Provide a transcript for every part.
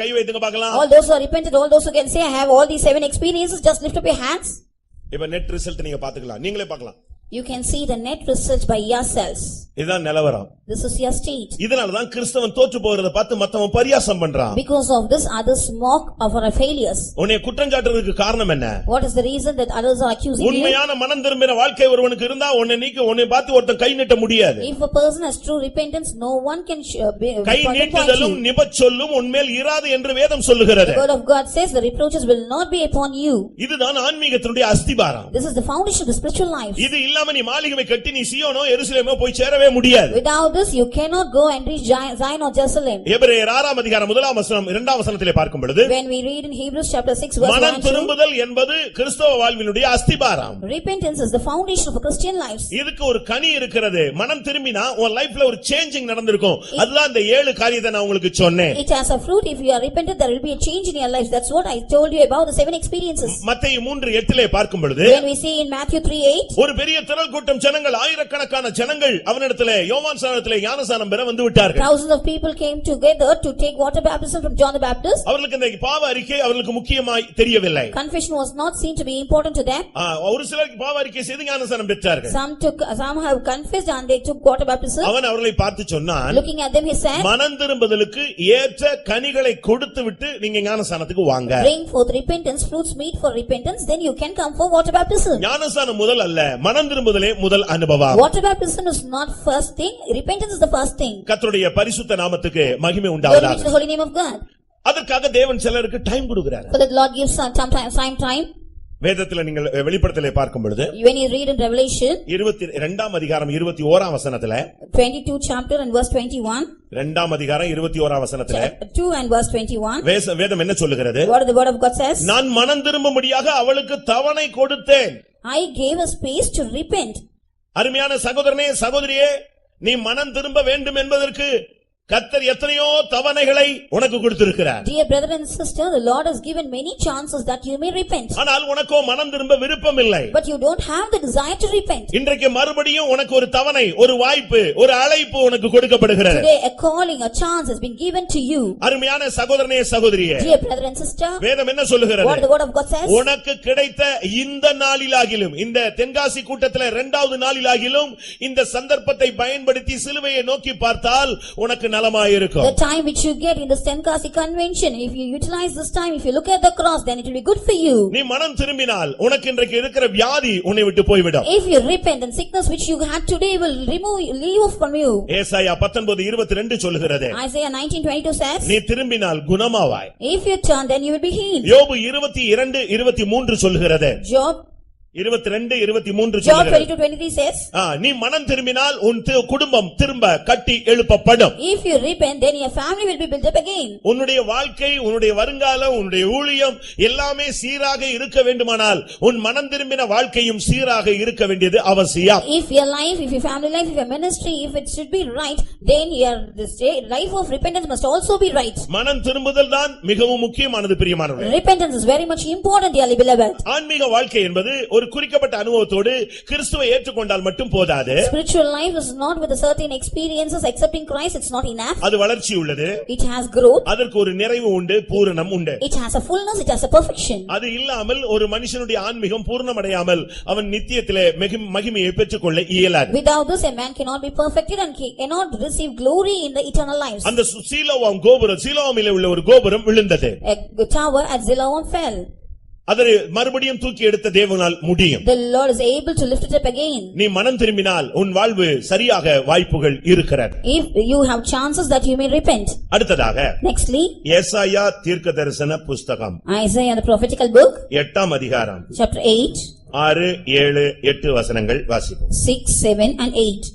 கை வைத்துங்க பார்க்கலாம் All those who are repentant, all those who can say, I have all these seven experiences, just lift up your hands. இப்ப net result நீங்க பாத்துக்கலாம் நீங்களே பார்க்கலாம் You can see the net result by yourselves. இதுதான் நிலவரம் This is your state. இதனாலதான் கிறிஸ்தவன் தோற்று போகிறத பார்த்து மத்தவன் பரியாசம் பண்றான் Because of this, others mock of our failures. உன்னை குற்றஞ்சாட்டுறதுக்கு காரணம் என்ன What is the reason that others are accusing you? உண்மையான மனம் திரும்பின வாழ்க்கை ஒருவனுக்கு இருந்தா உன்னை நீக்க உன்னை பார்த்து ஒருத்தன் கை நீட்ட முடியாது If a person has true repentance, no one can sh- uh, be- guy point நீட்டுதலும் you. நிபச்சொல்லும் உன்மேல் இராது என்று வேதம் சொல்லுகிறது The word of God says, the reproaches will not be upon you. இதுதான் ஆன்மீகத்தினுடைய அஸ்திபாரம் This is the foundation of the spiritual life. இது இல்லாம நீ மாளிகை கட்டி நீ சீயோனோ எருசலேமோ போய் சேரவே முடியாது Without this, you cannot go and reach Ji- Zion or Jerusalem. எபிரேயர் ஆறாம் அதிகாரம் முதலாம் வசனம் இரண்டாம் வசனத்திலே பார்க்கும் பொழுது When we read in Hebrews chapter six verse one மனம் and two, திரும்புதல் என்பது கிறிஸ்தவ வாழ்வினுடைய அஸ்திபாரம் repentance is the foundation of a Christian life. இதுக்கு ஒரு கனி இருக்கிறது மனம் திரும்பினா உன் லைஃப்ல ஒரு சேஞ்சிங் நடந்திருக்கும் அதுதான் இந்த ஏழு காரியத்தை நான் உங்களுக்கு சொன்னேன் It has a fruit. If you are repentant, there will be a change in your life. That's what I told you about the seven experiences. மத்தேயு மூன்று எட்டிலே பார்க்கும் பொழுது When we see in Matthew three eight, ஒரு பெரிய திரள் கூட்டம் ஜனங்கள் ஆயிரக்கணக்கான ஜனங்கள் அவனிடத்திலே யோவான் சானத்திலே ஞானசானம் பெற வந்து விட்டார்கள் thousands of people came together to take water baptism from John the Baptist. அவர்களுக்கு இந்த பாவ அறிக்கை அவர்களுக்கு முக்கியமாய் தெரியவில்லை Confession was not seen to be important to them. ஆ, ஒரு சிலருக்கு பாவ அறிக்கை செய்து ஞானசானம் பெற்றார்கள் Some took, some have confessed and they took water baptism. அவன் அவர்களை பார்த்து சொன்னான் Looking at them, he said, மனம் திரும்புதலுக்கு ஏற்ற கனிகளை கொடுத்து விட்டு நீங்க ஞானசானத்துக்கு வாங்க bring forth repentance, fruits meet for repentance, then you can come for water baptism. ஞானசானம் முதல் அல்ல மனம் திரும்புதலே முதல் அனுபவம் Water baptism is not first thing, repentance is the first thing. கர்த்தருடைய பரிசுத்த நாமத்துக்கு மகிமை Glory be to the உண்டாவதாக holy name of God. அதற்காக தேவன் சிலருக்கு டைம் கொடுக்கிறார் For that Lord gives some time, time, time. வேதத்துல நீங்கள் வெளிப்படத்திலே பார்க்கும் பொழுது When you read in Revelation இருபத்தி இரண்டாம் அதிகாரம் இருபத்தி ஓராம் வசனத்துல twenty-two chapter and verse twenty-one, இரண்டாம் அதிகாரம் இருபத்தி ஓராம் வசனத்துல chapter two and verse twenty-one, வேச- வேதம் என்ன சொல்லுகிறது what the word of God says? நான் மனம் திரும்பும்படியாக அவளுக்கு தவணை கொடுத்தேன் I gave a space to repent. அருமையான சகோதரனே சகோதரியே நீ மனம் திரும்ப வேண்டும் என்பதற்கு கர்த்தர் எத்தனையோ தவணைகளை உனக்கு கொடுத்திருக்கிறார் Dear brother and sister, the Lord has given many chances that you may repent. ஆனால் உனக்கோ மனம் திரும்ப விருப்பம் இல்லை But you don't have the desire to repent. இன்றைக்கு மறுபடியும் உனக்கு ஒரு தவணை ஒரு வாய்ப்பு ஒரு அழைப்பு உனக்கு கொடுக்கப்படுகிறது Today, a calling, a chance has been given to you. அருமையான சகோதரனே சகோதரியே Dear brother and sister, வேதம் என்ன what சொல்லுகிறது the word of God says? உனக்கு கிடைத்த இந்த நாளிலாகிலும் இந்த தென்காசி கூட்டத்துல இரண்டாவது நாளிலாகிலும் இந்த சந்தர்ப்பத்தை பயன்படுத்தி சிலுவையை நோக்கி பார்த்தால் உனக்கு The நலமாயிருக்கும் time which you get in the Stenkasi convention, if you utilize this time, if you look at the cross, then it will be good for you. நீ மனம் திரும்பினால் உனக்கு இன்றைக்கு இருக்கிற வியாதி உன்னை விட்டு போய்விடும் If you repent, then sickness which you had today will remove, leave off from you. ஏசாயா பத்தொன்பது இருபத்தி ரெண்டு சொல்லுகிறது Isaiah nineteen twenty-two says, நீ திரும்பினால் குணமாவாய் If you turn, then you will be healed. யோபு இருபத்தி இரண்டு இருபத்தி மூன்று சொல்லுகிறது Job, இருபத்தி ரெண்டு இருபத்தி மூன்று Job சொல்லுகிறது twenty-two twenty-three says, ஆ, நீ மனம் திரும்பினால் உன் தி- குடும்பம் திரும்ப கட்டி எழுப்பப்படும் If you repent, then your family will be built up again. உன்னுடைய வாழ்க்கை உன்னுடைய வருங்காலம் உன்னுடைய ஊழியம் எல்லாமே சீராக இருக்க வேண்டுமானால் உன் மனம் திரும்பின வாழ்க்கையும் சீராக இருக்க வேண்டியது அவசியம் If your life, if your family life, if your ministry, if it should be right, then your, this day, life of repentance must also be right. மனம் திரும்புதல் தான் மிகவும் முக்கியமானது பிரியமானவர்களே Repentance is very much important, dearly beloved. ஆன்மீக வாழ்க்கை என்பது ஒரு குறிக்கப்பட்ட அனுபவத்தோடு கிறிஸ்துவை ஏற்றுக்கொண்டால் மட்டும் போதாது Spiritual life is not with a certain experiences, accepting Christ, it's not enough. அது வளர்ச்சி உள்ளது It has growth, அதற்கு ஒரு நிறைவு உண்டு பூரணம் உண்டு it has a fullness, it has a perfection. அது இல்லாமல் ஒரு மனுஷனுடைய ஆன்மீகம் பூர்ணமடையாமல் அவன் நித்தியத்திலே மிகு- மகிமையை பெற்றுக்கொள்ள இயலாது Without this, a man cannot be perfected and he cannot receive glory in the eternal lives. அந்த சு- சீலோவாம் கோபுரம் சீலோவாமிலே உள்ள ஒரு கோபுரம் விழுந்தது A tower at Zilawam fell. அதை மறுபடியும் தூக்கி எடுத்த தேவனால் முடியும் The Lord is able to lift it up again. நீ மனம் திரும்பினால் உன் வாழ்வு சரியாக வாய்ப்புகள் இருக்கிறது If you have chances that you may repent. அடுத்ததாக Nextly, ஏசாயா தீர்க்க தரிசன புஸ்தகம் Isaiah, the prophetical book, எட்டாம் அதிகாரம் chapter 8, ஆறு ஏழு எட்டு வசனங்கள் வாசிப்போம் 6, 7 and 8.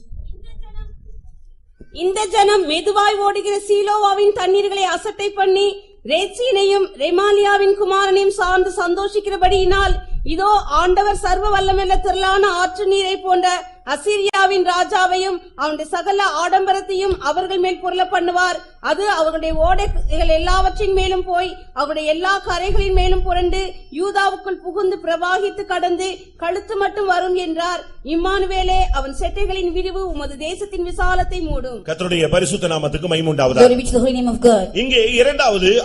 இந்த ஜனம் மெதுவாய் ஓடுகிற சீலோவாவின் தண்ணீர்களை அசட்டை பண்ணி ரேச்சீனையும் ரெமாலியாவின் குமாரனையும் சார்ந்து சந்தோஷிக்கிறபடியினால் இதோ ஆண்டவர் சர்வ வல்லமெல்ல திரளான ஆற்று நீரை போன்ற அசீரியாவின் ராஜாவையும் அவனுடைய சகல ஆடம்பரத்தையும் அவர்கள் மேல் புரள பண்ணுவார் அது அவர்களுடைய ஓடைகள் எல்லாவற்றின் மேலும் போய் அவருடைய எல்லா கரைகளின் மேலும் புரண்டு யூதாவுக்குள் புகுந்து பிரவாகித்து கடந்து கழுத்து மட்டும் வரும் என்றார் இம்மானுவேலே அவன் செட்டைகளின் விரிவு உமது தேசத்தின் விசாலத்தை மூடும் கர்த்தருடைய பரிசுத்த நாமத்துக்கு மைமுண்டாவதாக Glory be to the holy name of God. இங்கே இரண்டாவது